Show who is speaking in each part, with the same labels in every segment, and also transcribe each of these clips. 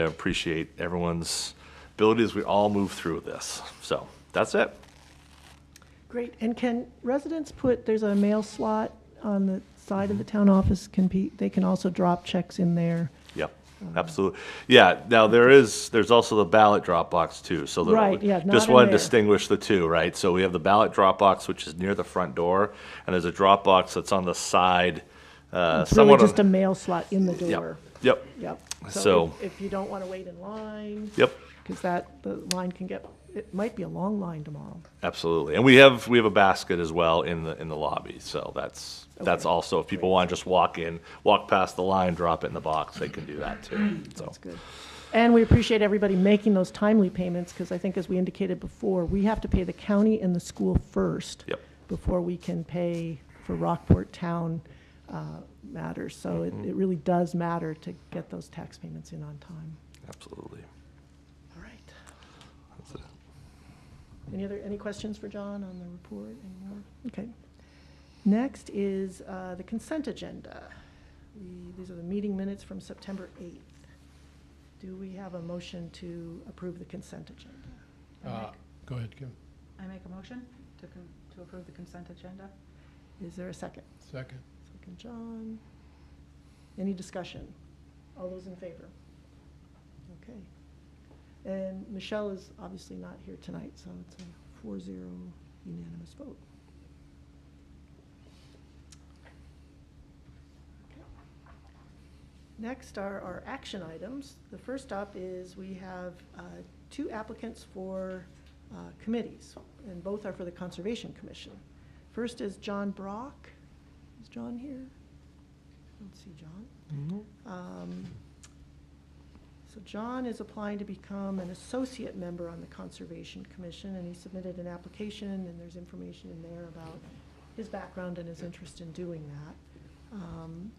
Speaker 1: I appreciate everyone's ability as we all move through this. So that's it.
Speaker 2: Great, and can residents put, there's a mail slot on the side
Speaker 1: Mm-hmm.
Speaker 2: of the town office, can be, they can also drop checks in there.
Speaker 1: Yep,
Speaker 2: Mm-hmm.
Speaker 1: absolutely. Yeah, now there is, there's also the ballot drop box too, so. the-
Speaker 2: Right, yeah, not
Speaker 1: Just
Speaker 2: in
Speaker 1: want to
Speaker 2: there.
Speaker 1: distinguish the two, right? So we have the ballot drop box, which is near the front door, and there's a drop box that's on the side. uh,
Speaker 2: It's really
Speaker 1: somewhat on-
Speaker 2: just a mail slot in the door.
Speaker 1: Yep, yep,
Speaker 2: Yep.
Speaker 1: So-
Speaker 2: if- If you don't want to wait in line.
Speaker 1: yep,
Speaker 2: Because that, the line can get, it might be a long line tomorrow.
Speaker 1: absolutely. And we have, we have a basket as well in the, in the lobby, so that's, that's
Speaker 2: Okay,
Speaker 1: also, if people want to just walk in, walk past the line, drop it in the box, they can do that too, so.
Speaker 2: That's good. And we appreciate everybody making those timely payments, because I think as we indicated before, we have to pay the county and the school first.
Speaker 1: Yep.
Speaker 2: Before we can pay for Rockport Town uh, matters. So it, it really does matter to get those tax payments in on time.
Speaker 1: Absolutely.
Speaker 2: All right.
Speaker 1: That's it.
Speaker 2: Any other, any questions for John on the report anymore? Okay. Next is uh, the consent agenda. The- These are the meeting minutes from September 8th. Do we have a motion to approve the consent agenda?
Speaker 3: Uh,
Speaker 4: I make-
Speaker 3: Go ahead, Kim.
Speaker 4: I make a motion to con- to approve the consent agenda.
Speaker 2: Is there a second?
Speaker 3: Second.
Speaker 2: Second, John. Any discussion? All those in favor? Okay. And Michelle is obviously not here tonight, so it's a 4-0 unanimous vote. Okay. Next are our action items. The first up is we have uh, two applicants for uh, committees, and both are for the Conservation Commission. First is John Brock. Is John here? I don't see John. Um, So John is applying to become an associate member on the Conservation Commission, and he submitted an application, and there's information in there about his background and his interest in doing that. Um,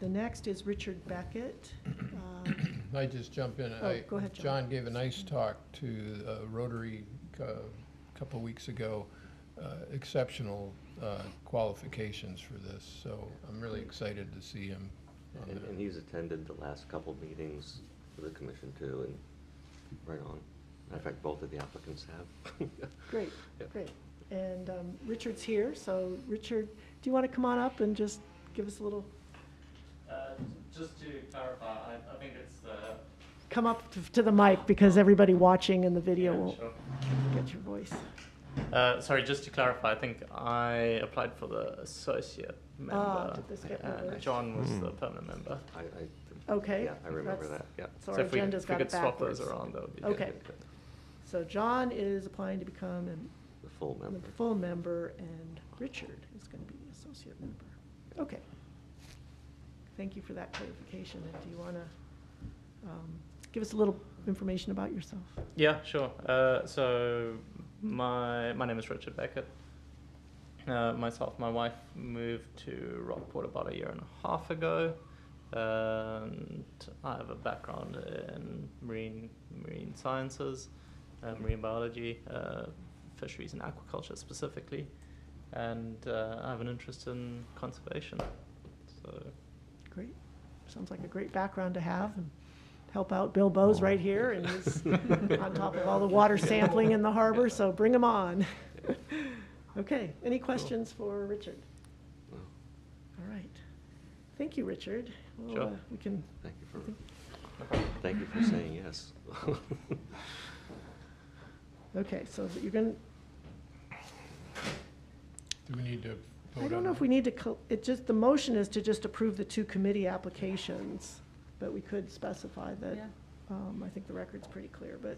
Speaker 2: The next is Richard Beckett. Um,
Speaker 3: I just jump in.
Speaker 2: Oh,
Speaker 3: I-
Speaker 2: go ahead, John.
Speaker 3: John gave a nice talk to uh, Rotary a couple weeks ago. Uh, Exceptional uh, qualifications for this, so I'm really excited to see him on
Speaker 5: And, and
Speaker 3: there.
Speaker 5: he's attended the last couple meetings for the commission too, and right on. Matter of fact, both of the applicants have.
Speaker 2: Great,
Speaker 5: Yeah.
Speaker 2: great. And um, Richard's here, so Richard, do you want to come on up and just give us a little,
Speaker 6: Uh, Just to clarify, I I think it's the.
Speaker 2: come up to- to the mic, because everybody watching in the video
Speaker 6: Yeah,
Speaker 2: will
Speaker 6: sure.
Speaker 2: get your voice.
Speaker 6: Uh, Sorry, just to clarify, I think I applied for the associate member.
Speaker 2: Ah, did this get
Speaker 6: And
Speaker 2: reversed?
Speaker 6: John was the permanent member.
Speaker 5: Uh, I, I.
Speaker 2: Okay.
Speaker 5: Yeah, I remember
Speaker 2: that's-
Speaker 5: that, yeah.
Speaker 2: So
Speaker 6: So
Speaker 2: our
Speaker 6: if we-
Speaker 2: agenda's got it
Speaker 6: If we could swap
Speaker 2: backwards.
Speaker 6: those around, that would be
Speaker 5: Yeah,
Speaker 6: good.
Speaker 2: Okay.
Speaker 5: yeah, yeah.
Speaker 2: So John is applying to become an-
Speaker 5: The full
Speaker 2: a
Speaker 5: member.
Speaker 2: full member, and Richard is going to be an associate member. Okay. Thank you for that clarification, and do you want to give us a little information about yourself?
Speaker 6: Yeah, sure. Uh, so my my name is Richard Beckett. Uh, myself, my wife moved to Rockport about a year and a half ago, and I have a background in marine marine sciences, uh, marine biology, uh, fisheries and aquaculture specifically, and uh, I have an interest in conservation. So
Speaker 2: Great, sounds like a great background to have, and help out Bill Bowes right here, and he's on top of all the water sampling in the harbor, so bring him on. Okay, any questions for Richard?
Speaker 5: Well,
Speaker 2: All right. Thank you, Richard. Well,
Speaker 6: Sure.
Speaker 2: uh, We can,
Speaker 5: Thank you for, thank you for saying yes.
Speaker 2: okay, so you're going,
Speaker 3: Do we need to vote on
Speaker 2: I don't know if
Speaker 3: it?
Speaker 2: we need to, co- it just, the motion is to just approve the two committee applications, but we could specify
Speaker 4: Yeah.
Speaker 2: that, um, I think the record's pretty clear, but,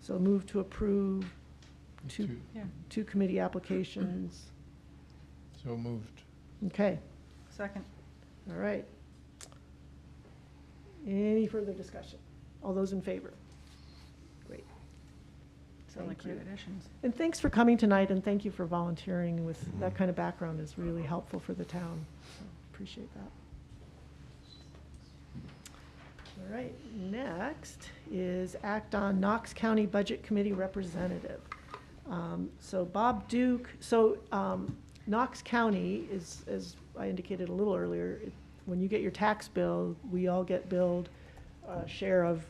Speaker 2: so move to approve two,
Speaker 3: Two.
Speaker 4: Yeah.
Speaker 2: two committee applications.
Speaker 3: So moved.
Speaker 2: Okay,
Speaker 4: Second.
Speaker 2: all right. Any further discussion? All those in favor? Great.
Speaker 4: Sound like
Speaker 2: Thank you.
Speaker 4: great additions.
Speaker 2: And thanks for coming tonight, and thank you for volunteering with, that kind of background is really helpful for the town. So Appreciate that. All right, next is act on Knox County Budget Committee Representative. Um, So Bob Duke, so um, Knox County is, as I indicated a little earlier, it- when you get your tax bill, we all get billed uh, share of